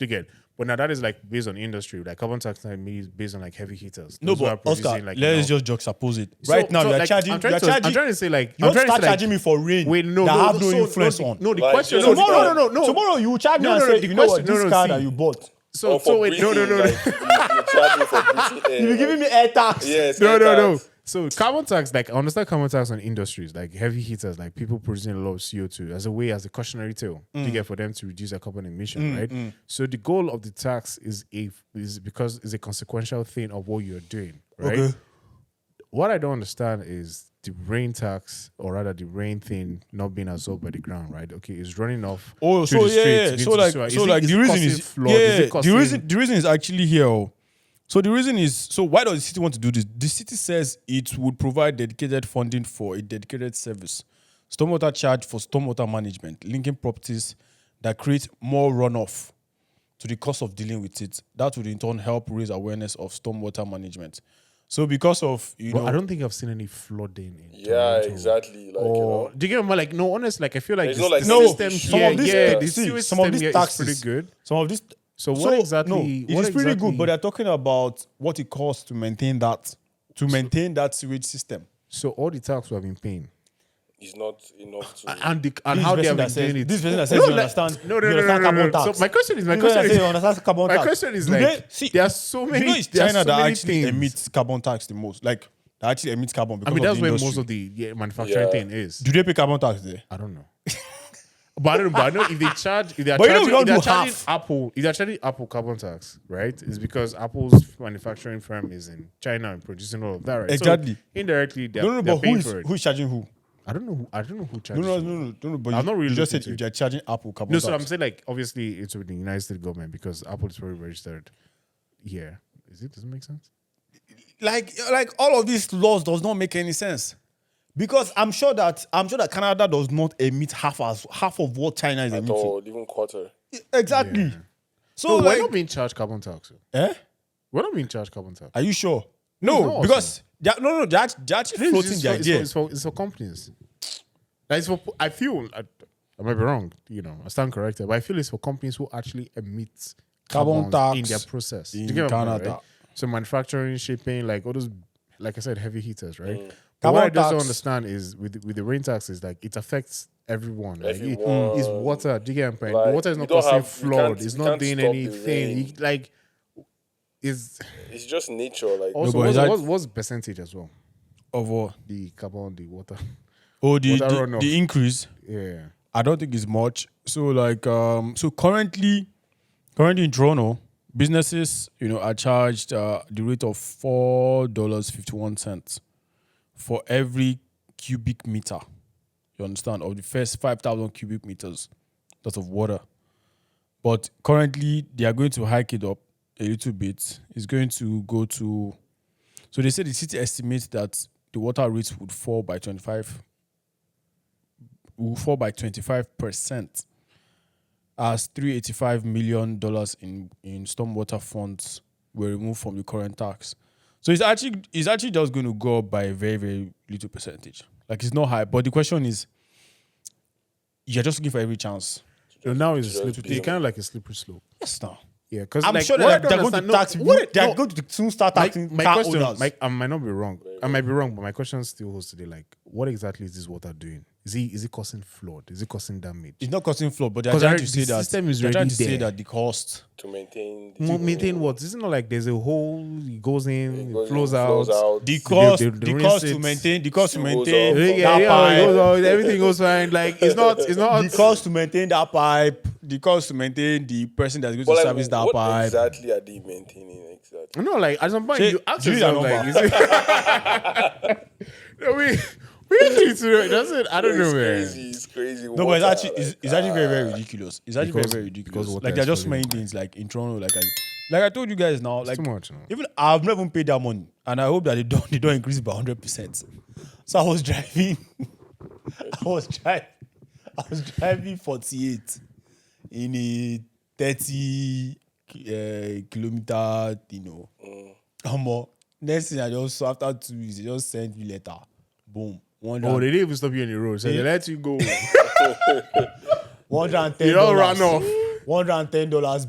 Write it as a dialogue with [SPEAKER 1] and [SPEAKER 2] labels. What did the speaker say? [SPEAKER 1] You get. But now that is like based on industry. Like carbon tax like me is based on like heavy hitters.
[SPEAKER 2] No,
[SPEAKER 1] Those who are
[SPEAKER 2] but
[SPEAKER 1] producing,
[SPEAKER 2] Oscar,
[SPEAKER 1] like, you
[SPEAKER 2] let's
[SPEAKER 1] know-
[SPEAKER 2] just juxtapose it.
[SPEAKER 1] So-
[SPEAKER 2] right now,
[SPEAKER 1] so,
[SPEAKER 2] you're
[SPEAKER 1] like,
[SPEAKER 2] charging.
[SPEAKER 1] I'm trying
[SPEAKER 2] You're
[SPEAKER 1] to-
[SPEAKER 2] charging.
[SPEAKER 1] I'm trying to say, like,
[SPEAKER 2] you
[SPEAKER 1] I'm
[SPEAKER 2] don't
[SPEAKER 1] trying to
[SPEAKER 2] start
[SPEAKER 1] say, like-
[SPEAKER 2] charging me for rain.
[SPEAKER 1] Wait, no,
[SPEAKER 2] that
[SPEAKER 1] no,
[SPEAKER 2] have no,
[SPEAKER 1] so-
[SPEAKER 2] influence
[SPEAKER 1] the-
[SPEAKER 2] on.
[SPEAKER 1] No, the
[SPEAKER 3] Like,
[SPEAKER 1] question.
[SPEAKER 3] just
[SPEAKER 1] No,
[SPEAKER 3] start.
[SPEAKER 1] no, no, no, no.
[SPEAKER 2] Tomorrow you will charge me
[SPEAKER 1] No,
[SPEAKER 2] and
[SPEAKER 1] no,
[SPEAKER 2] say,
[SPEAKER 1] the
[SPEAKER 2] you know what,
[SPEAKER 1] question- no,
[SPEAKER 2] this
[SPEAKER 1] no,
[SPEAKER 2] car
[SPEAKER 1] see.
[SPEAKER 2] that you bought,
[SPEAKER 1] So,
[SPEAKER 3] Or Oh, for
[SPEAKER 1] so wait, no, no,
[SPEAKER 3] breathing,
[SPEAKER 1] no, no.
[SPEAKER 3] like, you, you charge me for breathing air,
[SPEAKER 2] you be
[SPEAKER 3] like,
[SPEAKER 2] giving me air tax.
[SPEAKER 3] Yes,
[SPEAKER 1] no,
[SPEAKER 3] air
[SPEAKER 1] no, no.
[SPEAKER 3] tax.
[SPEAKER 1] So carbon tax, like I understand carbon tax on industries, like heavy hitters, like people producing a lot of CO two as a way as a cautionary tale
[SPEAKER 2] Mm.
[SPEAKER 1] to get for them to reduce their carbon emission, right? So the goal of the tax is a is because is a consequential thing of what you're doing, right?
[SPEAKER 2] Okay.
[SPEAKER 1] What I don't understand is the rain tax, or rather the rain thing, not being absorbed by the ground, right? Okay, it's running off.
[SPEAKER 2] Oh,
[SPEAKER 1] through
[SPEAKER 2] so
[SPEAKER 1] the
[SPEAKER 2] yeah, yeah.
[SPEAKER 1] streets,
[SPEAKER 2] so
[SPEAKER 1] into
[SPEAKER 2] like,
[SPEAKER 1] sewer. Is
[SPEAKER 2] so
[SPEAKER 1] it-
[SPEAKER 2] like
[SPEAKER 1] is
[SPEAKER 2] the
[SPEAKER 1] it
[SPEAKER 2] reason
[SPEAKER 1] causing
[SPEAKER 2] is
[SPEAKER 1] flood?
[SPEAKER 2] yeah,
[SPEAKER 1] Is it
[SPEAKER 2] the reason
[SPEAKER 1] causing-
[SPEAKER 2] the reason is actually here. oh. So the reason is so why does the city want to do this? The city says it would provide dedicated funding for a dedicated service, stormwater charge for stormwater management, linking properties that create more runoff to the cost of dealing with it. That would in turn help raise awareness of stormwater management. So because of you
[SPEAKER 1] But
[SPEAKER 2] know,
[SPEAKER 1] I don't think I've seen any flooding in
[SPEAKER 3] Yeah,
[SPEAKER 1] Toronto.
[SPEAKER 3] exactly. Like, you
[SPEAKER 1] Or
[SPEAKER 3] know,
[SPEAKER 1] do you get what I'm like no honest like I feel like
[SPEAKER 3] It's
[SPEAKER 1] the
[SPEAKER 3] not like
[SPEAKER 1] the
[SPEAKER 3] No,
[SPEAKER 1] system
[SPEAKER 3] some
[SPEAKER 1] here
[SPEAKER 3] of these-
[SPEAKER 1] yeah the
[SPEAKER 2] see,
[SPEAKER 1] sewage
[SPEAKER 2] some of
[SPEAKER 1] system
[SPEAKER 2] these
[SPEAKER 1] here is
[SPEAKER 2] taxes,
[SPEAKER 1] pretty good
[SPEAKER 2] Some of these.
[SPEAKER 1] So what exactly-
[SPEAKER 2] No, it
[SPEAKER 1] what
[SPEAKER 2] is pretty
[SPEAKER 1] exactly-
[SPEAKER 2] good, but they're talking about what it costs to maintain that, to maintain that sewage system.
[SPEAKER 1] so all the tax we have been paying
[SPEAKER 3] it's not enough to.
[SPEAKER 1] and the, and
[SPEAKER 2] This
[SPEAKER 1] how they have
[SPEAKER 2] person
[SPEAKER 1] been
[SPEAKER 2] that says-
[SPEAKER 1] doing it
[SPEAKER 2] This person that says you
[SPEAKER 1] like-
[SPEAKER 2] understand.
[SPEAKER 1] no no
[SPEAKER 2] you
[SPEAKER 1] no no,
[SPEAKER 2] understand
[SPEAKER 1] no, no,
[SPEAKER 2] carbon
[SPEAKER 1] So
[SPEAKER 2] tax.
[SPEAKER 1] my question is my
[SPEAKER 2] This
[SPEAKER 1] question
[SPEAKER 2] person that says
[SPEAKER 1] is
[SPEAKER 2] you understand carbon
[SPEAKER 1] my
[SPEAKER 2] tax.
[SPEAKER 1] question is
[SPEAKER 2] Do
[SPEAKER 1] like
[SPEAKER 2] they- see,
[SPEAKER 1] there are so
[SPEAKER 2] You know,
[SPEAKER 1] many
[SPEAKER 2] it's
[SPEAKER 1] there are
[SPEAKER 2] China
[SPEAKER 1] so
[SPEAKER 2] that
[SPEAKER 1] many
[SPEAKER 2] actually
[SPEAKER 1] things
[SPEAKER 2] emits carbon tax the most. Like, that actually emits carbon because
[SPEAKER 1] I mean
[SPEAKER 2] of
[SPEAKER 1] that's
[SPEAKER 2] the
[SPEAKER 1] where
[SPEAKER 2] industry.
[SPEAKER 1] most of the yeah, manufacturing
[SPEAKER 3] Yeah.
[SPEAKER 1] thing is
[SPEAKER 2] Do they pay carbon tax there?
[SPEAKER 1] I don't know. but I don't know. But I know if they charge, if they're
[SPEAKER 2] But you know
[SPEAKER 1] charging,
[SPEAKER 2] we don't
[SPEAKER 1] if they're
[SPEAKER 2] do
[SPEAKER 1] charging
[SPEAKER 2] half.
[SPEAKER 1] Apple, if they're charging Apple carbon tax, right? It's because Apple's manufacturing firm is in China and producing all of that, right? So
[SPEAKER 2] Exactly.
[SPEAKER 1] indirectly, they're,
[SPEAKER 2] No, no,
[SPEAKER 1] they're
[SPEAKER 2] no. But who
[SPEAKER 1] paying
[SPEAKER 2] is
[SPEAKER 1] for it.
[SPEAKER 2] who is charging who?
[SPEAKER 1] I don't know. Who, I don't know who
[SPEAKER 2] No,
[SPEAKER 1] charges.
[SPEAKER 2] no,
[SPEAKER 1] who.
[SPEAKER 2] no, no, no. no, But
[SPEAKER 1] I'm
[SPEAKER 2] you,
[SPEAKER 1] not really
[SPEAKER 2] you just
[SPEAKER 1] looking
[SPEAKER 2] said
[SPEAKER 1] to
[SPEAKER 2] if
[SPEAKER 1] it.
[SPEAKER 2] they're charging Apple carbon
[SPEAKER 1] No,
[SPEAKER 2] tax.
[SPEAKER 1] so I'm saying like obviously it's with the United States government because Apple is probably registered here. Is it? Does it make sense?
[SPEAKER 2] like like all of these laws does not make any sense because i'm sure that i'm sure that canada does not emit half as half of what china is
[SPEAKER 3] at
[SPEAKER 2] emitting
[SPEAKER 3] all, even quarter.
[SPEAKER 2] exactly so
[SPEAKER 1] No,
[SPEAKER 2] like
[SPEAKER 1] we're not being charged carbon tax.
[SPEAKER 2] eh?
[SPEAKER 1] We're not being charged carbon tax.
[SPEAKER 2] are you sure no
[SPEAKER 1] not
[SPEAKER 2] because they're, no no they're, act- they're actually
[SPEAKER 1] It's-
[SPEAKER 2] floating
[SPEAKER 1] it's
[SPEAKER 2] the
[SPEAKER 1] for, it's, for,
[SPEAKER 2] idea
[SPEAKER 1] it's, for, it's for companies. Like it's for, I feel I, I might be wrong. You know, I stand corrected, but I feel it's for companies who actually emit
[SPEAKER 2] Carbon
[SPEAKER 1] carbons in
[SPEAKER 2] tax
[SPEAKER 1] their process. Do you
[SPEAKER 2] in
[SPEAKER 1] get what I'm saying,
[SPEAKER 2] Canada.
[SPEAKER 1] right? So manufacturing, shipping, like all those, like I said, heavy hitters, right?
[SPEAKER 3] Mm.
[SPEAKER 1] But
[SPEAKER 2] Carbon
[SPEAKER 1] what I just don't
[SPEAKER 2] tax.
[SPEAKER 1] understand is with with the rain tax is like it affects everyone. Like it-
[SPEAKER 3] Everyone.
[SPEAKER 1] it's water. Do you get what I'm saying?
[SPEAKER 3] Like,
[SPEAKER 1] water is
[SPEAKER 3] you
[SPEAKER 1] not
[SPEAKER 3] don't
[SPEAKER 1] causing
[SPEAKER 3] have- you can't-
[SPEAKER 1] flood. It's
[SPEAKER 3] you
[SPEAKER 1] not
[SPEAKER 3] can't
[SPEAKER 1] doing
[SPEAKER 3] stop the
[SPEAKER 1] anything.
[SPEAKER 3] rain.
[SPEAKER 1] It- like is
[SPEAKER 3] It's just nature. Like,
[SPEAKER 1] also
[SPEAKER 2] but
[SPEAKER 1] what's,
[SPEAKER 2] is that-
[SPEAKER 1] what's, what's the percentage as well?
[SPEAKER 2] of what
[SPEAKER 1] The carbon, the water.
[SPEAKER 2] oh the,
[SPEAKER 1] Water
[SPEAKER 2] the,
[SPEAKER 1] runoff.
[SPEAKER 2] the increase
[SPEAKER 1] Yeah.
[SPEAKER 2] I don't think it's much. So like um so currently currently in Toronto, businesses, you know, are charged uh, the rate of four dollars fifty one cents for every cubic meter. You understand? Of the first five thousand cubic meters that's of water. But currently they are going to hike it up a little bit. It's going to go to so they said the city estimates that the water rates would fall by twenty five will fall by 25% as 385 million dollars in in stormwater funds were removed from the current tax. So it's actually it's actually just going to go up by a very very little percentage. Like it's not high, but the question is you're just looking for every chance.
[SPEAKER 1] No, now it's a
[SPEAKER 3] just
[SPEAKER 1] slippery.
[SPEAKER 3] be
[SPEAKER 1] It's kind of like a slippery slope.
[SPEAKER 2] Yes, now.
[SPEAKER 1] Yeah, because
[SPEAKER 2] I'm
[SPEAKER 1] like,
[SPEAKER 2] sure
[SPEAKER 1] what I
[SPEAKER 2] that they're
[SPEAKER 1] don't
[SPEAKER 2] going to
[SPEAKER 1] understand-
[SPEAKER 2] tax.
[SPEAKER 1] no,
[SPEAKER 2] what
[SPEAKER 1] what I-
[SPEAKER 2] they're
[SPEAKER 1] no,
[SPEAKER 2] going to soon start
[SPEAKER 1] my,
[SPEAKER 2] taxing
[SPEAKER 1] my
[SPEAKER 2] car
[SPEAKER 1] question,
[SPEAKER 2] owners.
[SPEAKER 1] my, I might not be wrong. I might be wrong, but my question still holds today. Like, what exactly is this water doing? Is it is it causing flood? Is it causing damage?
[SPEAKER 2] it's not causing flow, but they're
[SPEAKER 1] 'Cause
[SPEAKER 2] trying
[SPEAKER 1] already-
[SPEAKER 2] to say
[SPEAKER 1] the
[SPEAKER 2] that
[SPEAKER 1] system is
[SPEAKER 2] they're trying
[SPEAKER 1] already
[SPEAKER 2] to say
[SPEAKER 1] there.
[SPEAKER 2] that the cost.
[SPEAKER 3] to maintain. The,
[SPEAKER 1] Mo- maintain what? Isn't it not like there's a hole, it goes in, it,
[SPEAKER 3] goes in,
[SPEAKER 1] flows,
[SPEAKER 3] flows
[SPEAKER 1] out.
[SPEAKER 3] out.
[SPEAKER 2] The
[SPEAKER 3] The
[SPEAKER 2] cost,
[SPEAKER 1] they-
[SPEAKER 2] the
[SPEAKER 1] they
[SPEAKER 2] cost
[SPEAKER 1] rinse
[SPEAKER 2] to
[SPEAKER 1] it.
[SPEAKER 2] maintain, the cost to
[SPEAKER 3] Goes
[SPEAKER 2] maintain.
[SPEAKER 3] up.
[SPEAKER 1] Yeah,
[SPEAKER 2] that
[SPEAKER 1] yeah, yeah, it
[SPEAKER 2] pipe.
[SPEAKER 1] goes out, everything goes fine. Like it's not, it's not.
[SPEAKER 2] the cost to maintain that pipe, the cost to maintain the person that's going to
[SPEAKER 3] But, like,
[SPEAKER 2] service that
[SPEAKER 3] what
[SPEAKER 2] pipe.
[SPEAKER 3] exactly are they maintaining exactly?
[SPEAKER 1] No, like at some point
[SPEAKER 2] Say,
[SPEAKER 1] you ask
[SPEAKER 2] give me that
[SPEAKER 1] yourself, like, is it, no, we we actually to know. That's it. I don't know,
[SPEAKER 3] It's
[SPEAKER 1] man.
[SPEAKER 3] crazy. It's crazy.
[SPEAKER 2] No, but it's
[SPEAKER 3] Water,
[SPEAKER 2] actually it's,
[SPEAKER 3] like, uh,
[SPEAKER 2] it's actually very very ridiculous. It's actually
[SPEAKER 1] Because-
[SPEAKER 2] very very ridiculous.
[SPEAKER 1] because water
[SPEAKER 2] Like there are
[SPEAKER 1] is
[SPEAKER 2] just
[SPEAKER 1] polluted.
[SPEAKER 2] many things like in Toronto, like I like I told you guys now, like
[SPEAKER 1] too much, no?
[SPEAKER 2] even I've never even paid that money, and I hope that they don't they don't increase it by hundred percent. So I was driving, I was driving, I was driving forty eight in a thirty uh, kilometer, you know,
[SPEAKER 1] Mm.
[SPEAKER 2] omo. Next thing I just after two weeks, they just sent me letter, boom, one
[SPEAKER 1] Oh,
[SPEAKER 2] hundred
[SPEAKER 1] they didn't even stop you on the road. So they let you go.
[SPEAKER 2] and ten
[SPEAKER 1] It all
[SPEAKER 2] dollars,
[SPEAKER 1] ran off.
[SPEAKER 2] one hundred and ten dollars